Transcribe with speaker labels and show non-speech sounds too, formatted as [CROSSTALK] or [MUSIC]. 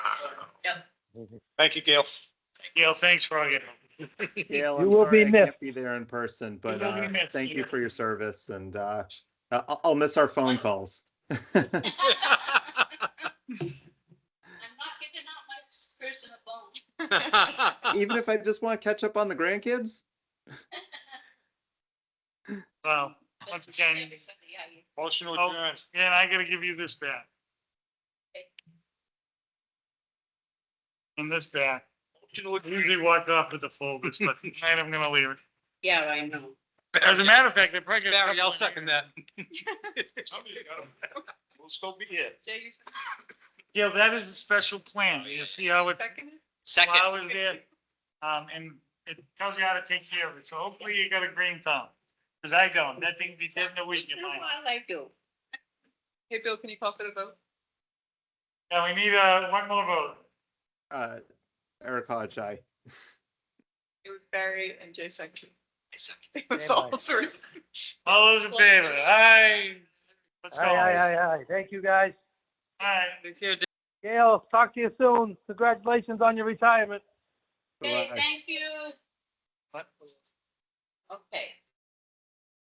Speaker 1: Thank you, Gail.
Speaker 2: Gail, thanks for all your.
Speaker 3: Gail,
Speaker 4: You
Speaker 3: I'm
Speaker 4: will
Speaker 3: sorry
Speaker 4: be
Speaker 3: I
Speaker 4: missed.
Speaker 3: can't be there in person, but
Speaker 2: will be
Speaker 3: uh,
Speaker 2: missed,
Speaker 3: thank you
Speaker 2: Peter.
Speaker 3: for your service and uh, I- I'll, I'll miss our phone calls.
Speaker 5: I'm not giving out my person a bone.
Speaker 3: Even if I just want to catch up on the grandkids,
Speaker 2: Well, once again,
Speaker 5: Everybody, yeah, you-
Speaker 1: Motion to
Speaker 2: Oh.
Speaker 1: adjourn.
Speaker 2: yeah, I gotta give you this back. And this back. Usually walk off with the folders, but [LAUGHS] tonight I'm gonna leave it.
Speaker 5: Yeah, I know.
Speaker 2: As a matter of fact, they're probably. gonna-
Speaker 6: Barry, I'll second that.
Speaker 1: Somebody's got 'em. We'll still be here.
Speaker 5: Jay, you
Speaker 2: Yeah, that is a special plan. You see how it,
Speaker 5: second it?
Speaker 6: Second.
Speaker 2: how it's there. Um, and it tells you how to take care of it. So hopefully you got a green thumb. Cause I don't. That thing be dead in a week. in
Speaker 5: You know
Speaker 2: mine.
Speaker 5: what I do. Hey, Bill, can you call for the vote?
Speaker 2: Now we need, uh, one more vote.
Speaker 3: uh, Eric Hodge, I.
Speaker 5: It was Barry and Jay second. It
Speaker 4: was all
Speaker 5: three.
Speaker 2: All those in favor? Aye. Let's go.
Speaker 4: Aye, aye, aye, aye. Thank you, guys.
Speaker 2: Aye.
Speaker 4: Gail, talk to you soon. Congratulations on your retirement.
Speaker 5: Okay, thank you.
Speaker 2: What?
Speaker 5: Okay.